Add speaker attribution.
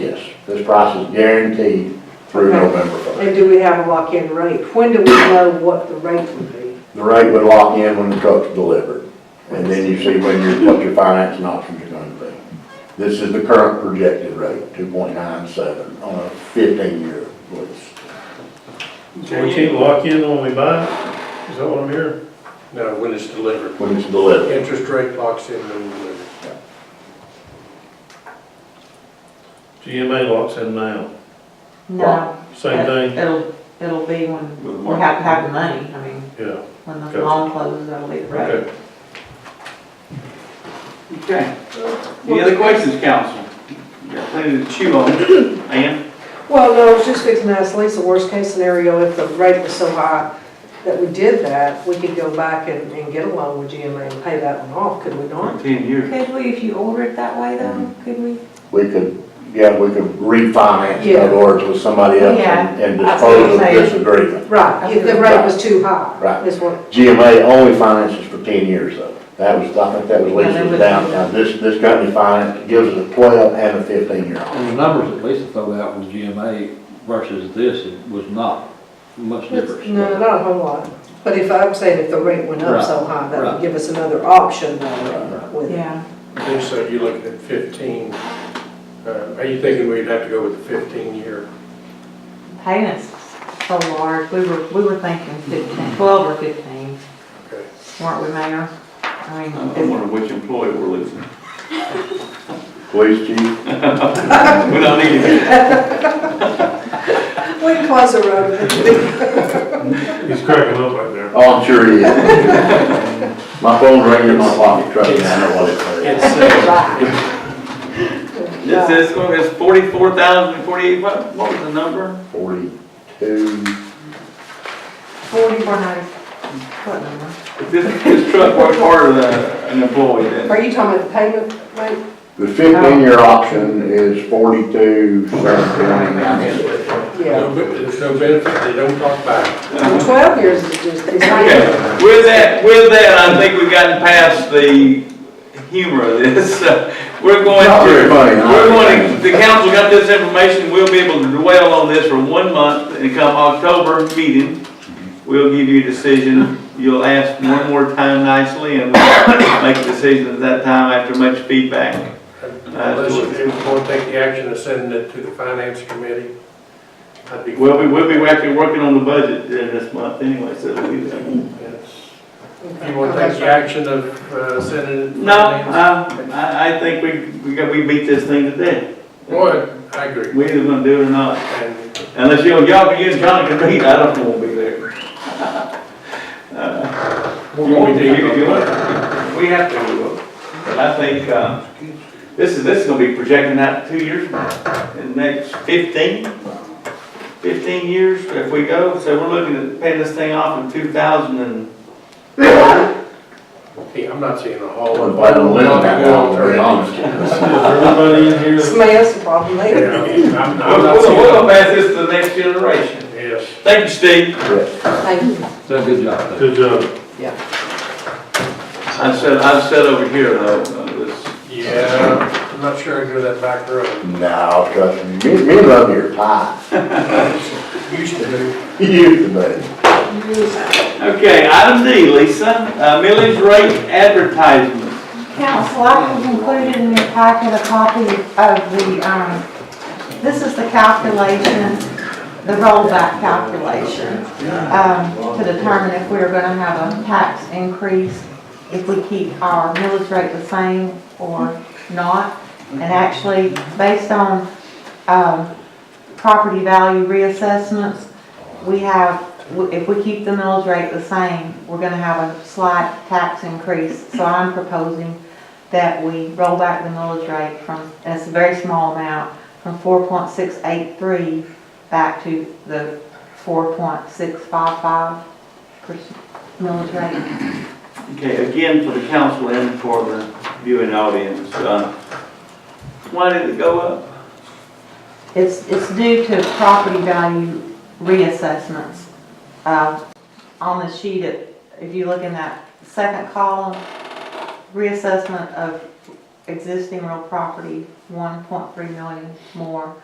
Speaker 1: This price is guaranteed through
Speaker 2: Okay.
Speaker 1: November first.
Speaker 2: And do we have a lock-in rate? When do we know what the rate would be?
Speaker 1: The rate would lock in when the truck's delivered, and then you see when your, what your financing options are gonna be. This is the current projected rate, two point nine seven, on a fifteen-year lease.
Speaker 3: So we can't lock in when we buy it? Is that what I'm hearing?
Speaker 4: No, when it's delivered.
Speaker 1: When it's delivered,
Speaker 4: Interest rate locks in when delivered.
Speaker 3: GMA locks in now.
Speaker 5: No.
Speaker 3: Same thing?
Speaker 5: It'll, it'll be when we have to have the money, I mean,
Speaker 3: Yeah,
Speaker 5: when the
Speaker 3: Gotcha.
Speaker 5: loan closes, that'll be the rate.
Speaker 3: okay.
Speaker 6: Okay. Any other questions, council? You got plenty to chew on. Ann?
Speaker 2: Well, no, I was just fixing to ask Lisa, worst case scenario, if the rate was so high that we did that, we could go back and, and get a loan with GMA and pay that one off, could we not?
Speaker 6: Ten years.
Speaker 5: Could we, if you order it that way though, could we?
Speaker 1: we could, yeah, we could refinance, in other
Speaker 2: Yeah.
Speaker 1: words, with somebody else and- and
Speaker 5: Yeah, that's what
Speaker 1: dispose of
Speaker 5: I'm saying.
Speaker 1: this agreement.
Speaker 2: Right, if the rate was too high.
Speaker 1: Right.
Speaker 2: Is what,
Speaker 1: GMA only finances for ten years though. That was, I think that was
Speaker 5: Yeah, they
Speaker 1: Lisa's
Speaker 5: would-
Speaker 1: downside. This, this company finance gives us a twelve and a fifteen-year option.
Speaker 7: And the numbers that Lisa threw out with GMA versus this it was not much difference.
Speaker 2: no, not a whole lot. But if, I'm saying if the rate went up so high, that would
Speaker 7: Right.
Speaker 2: give us another option though with
Speaker 5: Yeah.
Speaker 4: I think so, you're looking at fifteen. Uh, Are you thinking we'd have to go with the fifteen year?
Speaker 5: payments so large, we were, we were thinking fifteen, twelve or fifteen,
Speaker 4: Okay.
Speaker 5: weren't we, Mayor? I mean,
Speaker 6: I wonder which employee we're losing.
Speaker 1: Police chief?
Speaker 6: We don't need to.
Speaker 2: We can close the road.
Speaker 3: He's cracking up right there.
Speaker 1: Oh, I'm sure he is. My phone's ringing in my pocket, trust me, I know what it
Speaker 4: It's,
Speaker 1: is.
Speaker 4: uh,
Speaker 6: It says, well, it's forty-four thousand, forty-eight, what, what was the number?
Speaker 1: Forty-two,
Speaker 5: forty-four hundred, what number?
Speaker 6: If This, this truck worked harder than an employee then.
Speaker 2: Are you talking about the payment rate?
Speaker 1: the fifteen-year option is forty-two, seven, twenty-nine.
Speaker 2: Yeah.
Speaker 4: no be- There's no benefit, they don't talk back.
Speaker 2: And Twelve years is just, is
Speaker 6: Okay, with that, with that, I think we've gotten past the humor of this. We're going
Speaker 1: Not very
Speaker 6: to,
Speaker 1: funny, huh?
Speaker 6: we're going, to- the council got this information, we'll be able to dwell on this for one month, and come October meeting, we'll give you a decision. You'll ask one more time nicely, and we'll make a decision at that time after much feedback.
Speaker 4: Unless if you want to take the action of sending it to the finance committee. I'd be.
Speaker 6: Well, we will be actually working on the budget during this month anyway, so it'll be there.
Speaker 4: Yes. If you want to take the action of uh, sending it. to
Speaker 6: No,
Speaker 4: finance-
Speaker 6: I, I, I think we, we got, we beat this thing to death.
Speaker 4: Boy, I agree.
Speaker 6: We either gonna do it or not,
Speaker 4: And
Speaker 6: unless you, y'all can use Johnny to beat, I don't wanna be there. Uh,
Speaker 4: We're going to
Speaker 6: You- you- you
Speaker 4: do
Speaker 6: want
Speaker 4: it.
Speaker 6: to? We have to, we will. but I think, uh, this is, this is gonna be projecting out two years from now, in the next fifteen, fifteen years if we go, so we're looking at paying this thing off in two thousand and,
Speaker 4: Hey, I'm not seeing a whole.
Speaker 1: I wouldn't plan on living that long, to be honest.
Speaker 3: Is everybody in here?
Speaker 2: Smells the problem later.
Speaker 4: Yeah, I'm I'm
Speaker 6: we'll,
Speaker 4: not
Speaker 6: we'll,
Speaker 4: seeing.
Speaker 6: we'll pass this to the next generation.
Speaker 4: Yes.
Speaker 6: Thank you, Steve.
Speaker 2: Thank you.
Speaker 7: So good job. Dave.
Speaker 3: Good job.
Speaker 6: I said, I said over here though, uh, this,
Speaker 4: Yeah, I'm not sure I'd go that back road.
Speaker 1: No, trust me, me, me and Lovey are tied.
Speaker 4: Used to do.
Speaker 1: You can bet.
Speaker 6: okay, item D, Lisa, uh, millage rate advertisement.
Speaker 5: Council, I have included in your packet a copy of the, um, this is the calculation, the rollback calculation, um, to determine if we're gonna have a tax increase, if we keep our millage rate the same or not. And actually, based on, um, property value reassessments, we have, if we keep the millage rate the same, we're gonna have a slight tax increase. So I'm proposing that we roll back the millage rate from, and it's a very small amount, from four point six eight three back to the four point six five five percent millage rate.
Speaker 6: Okay, again, for the council and for the viewing audience, uh, why did it go up?
Speaker 5: It's, it's due to property value reassessments. Uh, On the sheet, it- if you look in that second column, reassessment of existing real property, 1.3 million more.